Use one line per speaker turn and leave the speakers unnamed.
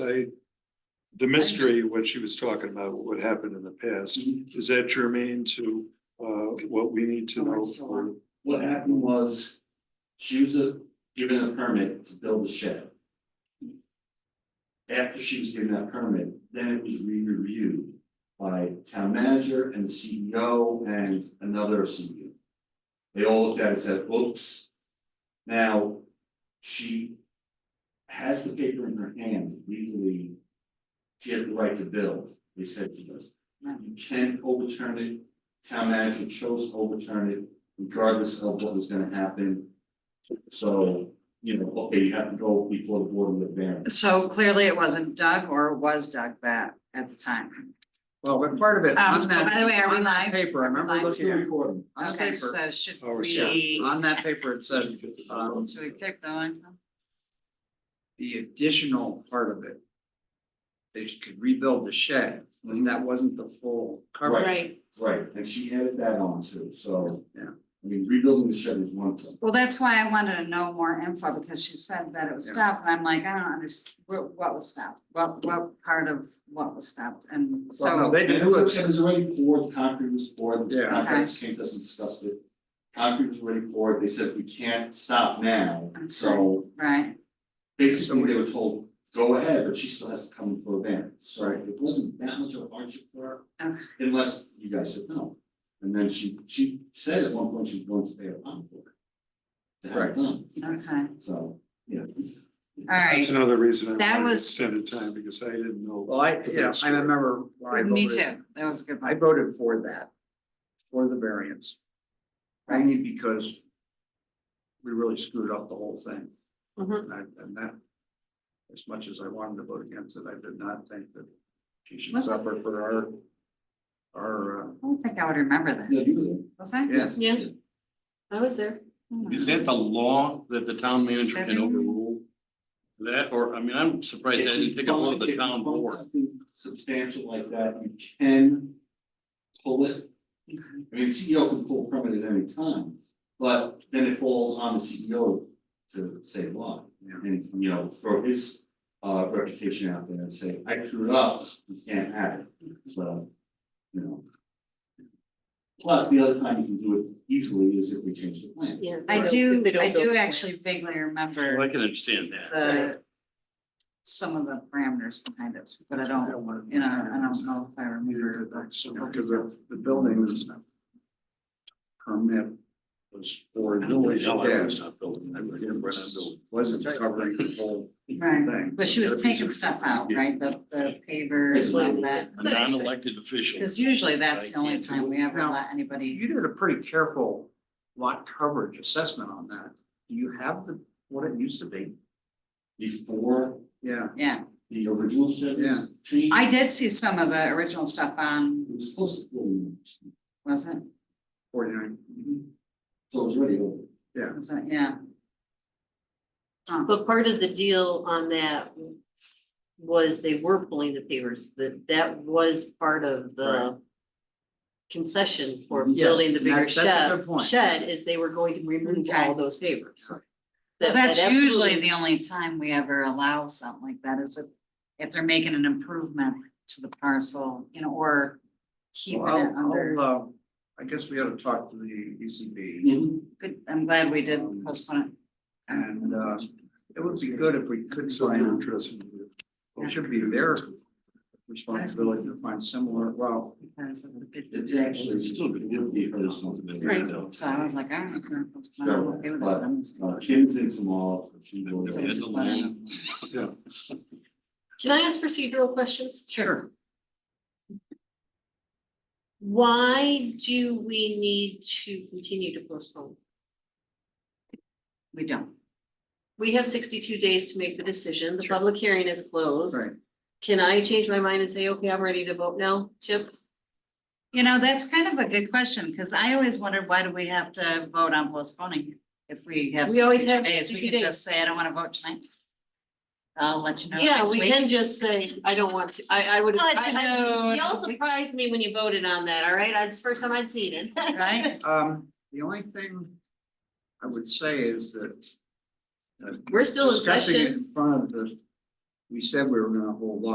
I, the mystery, what she was talking about, what happened in the past, is that germane to uh what we need to
Oh,
know for?
What happened was, she was uh, given a permit to build the shed. After she was given that permit, then it was re-reviewed by town manager and CEO and another CEO. They all looked at it and said, oops. Now, she has the paper in her hand legally. She has the right to build, they said she does. You can't overturn it, town manager chose to overturn it regardless of what was gonna happen. So, you know, okay, you have to go before the board with variance.
So clearly it wasn't Doug or it was Doug that at the time.
Well, but part of it,
Um,
on that,
by the way, are we
on
live?
that paper, I remember
Live
looking at,
Recording.
on the
Okay,
paper,
so should
Oh,
we?
yeah.
on that paper, it said, um,
Should we pick going?
the additional part of it. They could rebuild the shed, and that wasn't the full coverage.
Right,
Right, and she added that on too, so.
Yeah.
I mean, rebuilding the shed is one thing.
Well, that's why I wanted to know more info because she said that it was
Yeah.
stopped and I'm like, I don't understand, what, what was stopped? What, what part of what was stopped? And
Well, no,
so,
they
And it
knew
was,
it,
it was already poured, concrete was poured, the
Yeah.
contractors came to us and discussed it. Concrete was already poured, they said we can't stop now, so
right,
basically they were told, go ahead, but she still has to come for a variance. So
Right.
it wasn't that much of a hardship for her.
okay,
Unless you guys said no. And then she, she said at one point she was going to pay a bond for it. To have it done.
okay, all
So, yeah.
right.
That's another reason
That
I wanted
was-
extended time, because I didn't know.
well, I, yeah, I remember when I voted.
Me too, that was a good
I
one.
voted for that, for the variance. Only because we really screwed up the whole thing.
Mhm.
Mm-hmm.
And I- and that, as much as I wanted to vote against it, I did not think that she should
Was it-
suffer for our, our, uh,
I don't think I would remember that,
Yeah, you
was I?
yes.
yeah, I was there.
Hmm.
Is that the law that the town manager can overrule? That, or, I mean, I'm
were.
surprised I didn't pick up one of
If
the
you
town
find
board.
something Substantial like that, you can pull it.
Okay.
I mean, CEO can pull a permit at any time, but then it falls on the CEO to say why.
Yeah.
And, you know, throw his uh reputation out there and say, I screwed up, you can't have it, so, you know. Plus, the other time you can do it easily is if we change the plan.
Yeah.
I
They
do,
don't- they don't
I
build
do
the
actually vaguely
Well, I
remember
can understand that.
the, some of the parameters behind it, but I don't,
want to-
um, you know, I don't know if I
Neither
remember.
did I, so, because the, the building is not permit was for
I don't
doing
know why I
gas.
stopped building. I really remember when I built.
Wasn't covering the whole
Right,
thing.
but she was taking stuff out, right, the, the pavers and that,
A non-elected official.
because usually that's the only time we ever
Now,
let anybody.
You did a pretty careful lot coverage assessment on that. Do you have the, what it used to be?
Before
Yeah.
Yeah,
the original shed was changed.
I did see some of the original stuff on,
It was supposed to, be,
was it,
Forty-nine.
so it was already over.
was it, yeah. Huh.
But part of the deal on that was they were pulling the pavers, that that was part of
Right.
the concession for
Yes,
building the
that-
bigger
that's a
shed,
good point.
shed is they were going to remove all
Okay.
those pavers.
Well,
Right.
That-
that's
that
usually
absolutely-
the only time we ever allow something like that is if, if they're making an improvement to the parcel, you know, or keeping
Well,
it
I'll-
under.
I'll, uh, I guess we ought to talk to the E ECB
Mm-hmm.
Good, I'm glad we did postpone it.
Um, and, uh, it would be good if we could
So you're
find,
interested in
it should be their responsibility to find similar, well,
Because of the big-
It's actually,
It's still gonna
would be
be
her
her responsibility.
responsibility.
So I was like, I don't know. postpone it, I'm okay with it,
Sure,
I'm just
Uh,
gonna-
Kim's in tomorrow, so she will.
They had the land.
yeah.
Can I ask procedural questions?
Sure.
Why do we need to continue to postpone?
We don't.
We have sixty-two days to make the decision. The public hearing is closed.
right.
Can I change my mind and say, okay, I'm ready to vote now, Chip?
You know, that's kind of a good question, because I always wondered, why do we have to vote on postponing? If we have.
We always
60
have
days,
62
We could
days.
just say, I don't want to vote tonight. I'll let you know
Yeah,
next
we
week.
can just say, I don't want to, I, I would.
I'll let you
I- I-
know
Y'all
next week.
surprised me when you voted on that, all right? That's the first time I'd seen it.
Right?
Um, the only thing I would say is that. uh,
We're still in
discussing it
session.
In front of the we said we were gonna hold off.